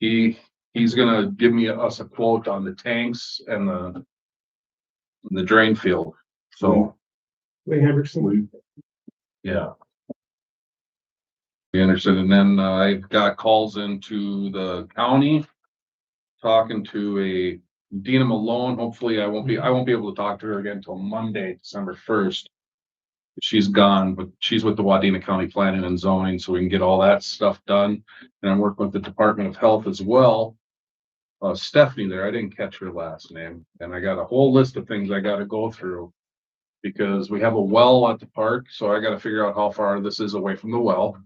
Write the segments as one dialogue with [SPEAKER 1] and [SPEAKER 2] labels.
[SPEAKER 1] He, he's gonna give me, us a quote on the tanks and the the drain field, so,
[SPEAKER 2] Lee Hendrickson.
[SPEAKER 1] we, yeah. Be interested, and then uh, I got calls into the county, talking to a Dina Malone, hopefully I won't be, I won't be able to talk to her again until Monday, December first. She's gone, but she's with the Wadena County Planning and Zoning, so we can get all that stuff done, and I'm working with the Department of Health as well. Uh, Stephanie there, I didn't catch her last name, and I got a whole list of things I gotta go through because we have a well at the park, so I gotta figure out how far this is away from the well.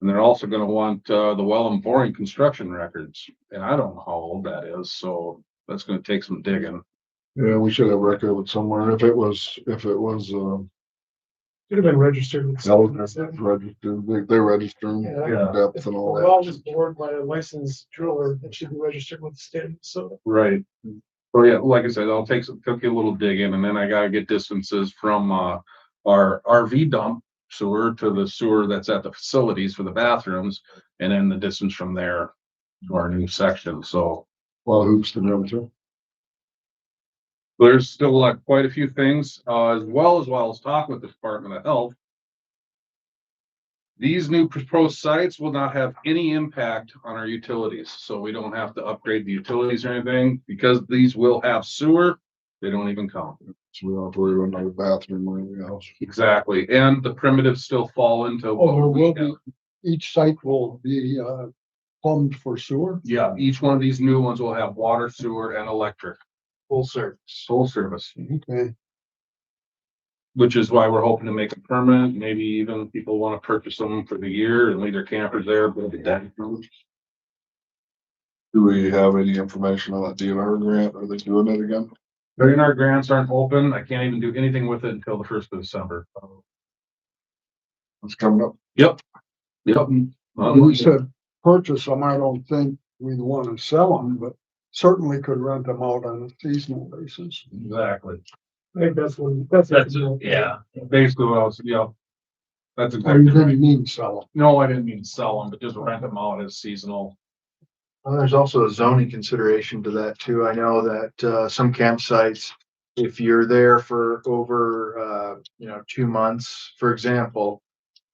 [SPEAKER 1] And they're also gonna want, uh, the well and boring construction records, and I don't know how old that is, so that's gonna take some digging.
[SPEAKER 3] Yeah, we should have record of it somewhere. If it was, if it was, um,
[SPEAKER 2] Should have been registered. with-
[SPEAKER 3] registered, they, they register them
[SPEAKER 2] Yeah.
[SPEAKER 3] in depth
[SPEAKER 2] If the
[SPEAKER 3] and all
[SPEAKER 2] well
[SPEAKER 3] that.
[SPEAKER 2] is bored by a licensed driller, it should be registered with the state, so.
[SPEAKER 1] Right. So yeah, like I said, I'll take some, took you a little digging and then I gotta get distances from, uh, our RV dump sewer to the sewer that's at the facilities for the bathrooms. And then the distance from there to our new section, so.
[SPEAKER 3] A lot of hoops to jump through.
[SPEAKER 1] There's still uh, quite a few things, uh, as well as while I was talking with the Department of Health. These new proposed sites will not have any impact on our utilities, so we don't have to upgrade the utilities or anything, because these will have sewer, they don't even count.
[SPEAKER 3] So we don't have to worry about another bathroom or anything else.
[SPEAKER 1] Exactly, and the primitives still fall into. what
[SPEAKER 4] Oh, there
[SPEAKER 1] we
[SPEAKER 4] will be.
[SPEAKER 1] have.
[SPEAKER 4] each site will be uh plumbed for sewer.
[SPEAKER 1] Yeah, each one of these new ones will have water, sewer, and electric,
[SPEAKER 2] Full service.
[SPEAKER 1] full service,
[SPEAKER 4] Okay,
[SPEAKER 1] which is why we're hoping to make it permanent, maybe even people wanna purchase them for the year and leave their campers there, but that.
[SPEAKER 3] Do we have any information on that DNR grant? Are they doing it again?
[SPEAKER 1] Million dollar grants aren't open. I can't even do anything with it until the first of December.
[SPEAKER 3] It's coming up.
[SPEAKER 1] Yep.
[SPEAKER 4] we said purchase them, I don't think we'd want to sell them, but certainly could rent them out on a seasonal basis.
[SPEAKER 1] Exactly.
[SPEAKER 2] I think that's one, that's.
[SPEAKER 1] That's it, yeah. Basically what I was, yeah. That's
[SPEAKER 4] Or
[SPEAKER 1] exactly
[SPEAKER 4] you
[SPEAKER 1] right.
[SPEAKER 4] didn't mean sell
[SPEAKER 1] No, I didn't mean to sell them, but just rent them out as seasonal.
[SPEAKER 5] Well, there's also a zoning consideration to that too. I know that, uh, some campsites, if you're there for over, uh, you know, two months, for example,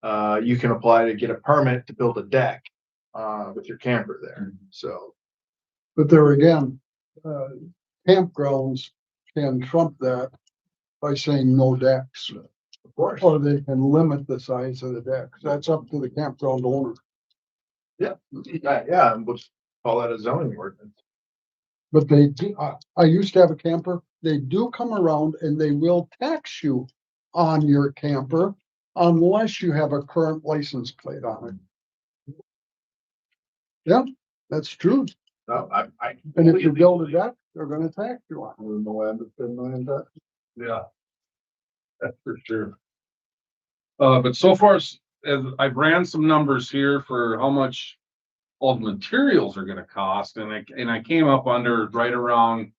[SPEAKER 5] uh, you can apply to get a permit to build a deck, uh, with your camper there. So
[SPEAKER 4] them, but there again, uh campgrounds can trump that by saying no decks. Of course. Or they can limit the size of the decks, that's up to the campground owner,
[SPEAKER 5] Yeah, yeah, and we'll call that a zoning ordinance.
[SPEAKER 4] but they, do- I, I used to have a camper, they do come around and they will tax you on your camper unless you have a current license plate on it. Yeah, that's true.
[SPEAKER 5] No, I, I.
[SPEAKER 4] And if you build a deck, they're gonna tax you on it.
[SPEAKER 3] We're in the land of ten million bucks.
[SPEAKER 1] Yeah. That's for sure. Uh, but so far, s- as I ran some numbers here for how much all the materials are gonna cost, and I, and I came up under right around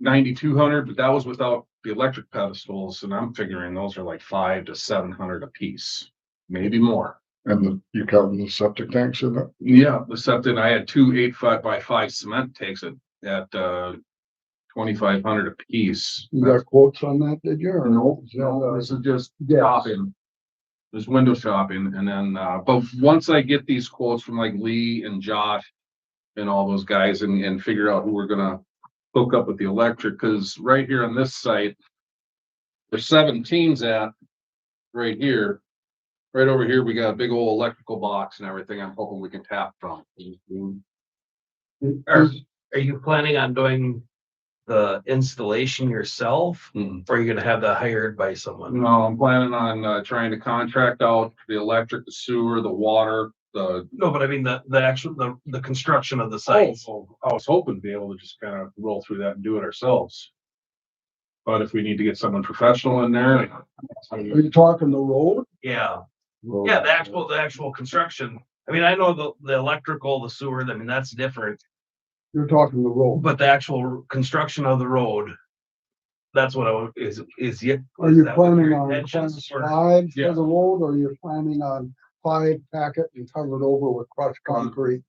[SPEAKER 1] ninety-two hundred, but that was without the electric pedestals, and I'm figuring those are like five to seven hundred apiece, maybe more.
[SPEAKER 3] And the- you counting the septic tanks in it?
[SPEAKER 1] Yeah, the septic, I had two eight five by five cement takes it at, uh, twenty-five hundred apiece.
[SPEAKER 4] You got quotes on that, uh, did you? or-
[SPEAKER 1] No, no, this is just shopping. There's window shopping and then, uh, but once I get these quotes from like Lee and Josh. And all those guys and, and figure out who we're gonna hook up with the electric, cause right here on this site. There's seventeens at, right here. Right over here, we got a big old electrical box and everything. I'm hoping we can tap from.
[SPEAKER 6] Are, are you planning on doing the installation yourself?
[SPEAKER 1] Hmm.
[SPEAKER 6] Or are you gonna have that hired by someone?
[SPEAKER 1] No, I'm planning on, uh, trying to contract out the electric, the sewer, the water, the
[SPEAKER 6] No, but I mean the, the actual, the, the construction of the
[SPEAKER 1] Oh,
[SPEAKER 6] site.
[SPEAKER 1] well, I was hoping to be able to just kind of roll through that and do it ourselves. But if we need to get someone professional in there. like,
[SPEAKER 4] Are you talking the road?
[SPEAKER 6] Yeah,
[SPEAKER 3] Well,
[SPEAKER 6] yeah, the actual, the actual construction. I mean, I know the, the electrical, the sewer, I mean, that's different,
[SPEAKER 4] You're talking the road.
[SPEAKER 6] but the actual construction of the road. That's what I would, is, is yet.
[SPEAKER 4] Are
[SPEAKER 6] is
[SPEAKER 4] you
[SPEAKER 6] that what
[SPEAKER 4] planning
[SPEAKER 6] your
[SPEAKER 4] on kind of
[SPEAKER 6] intentions were?
[SPEAKER 4] slides
[SPEAKER 1] Yeah.
[SPEAKER 6] Um,
[SPEAKER 4] for the road, or you're planning on five packet and covered over with crushed concrete?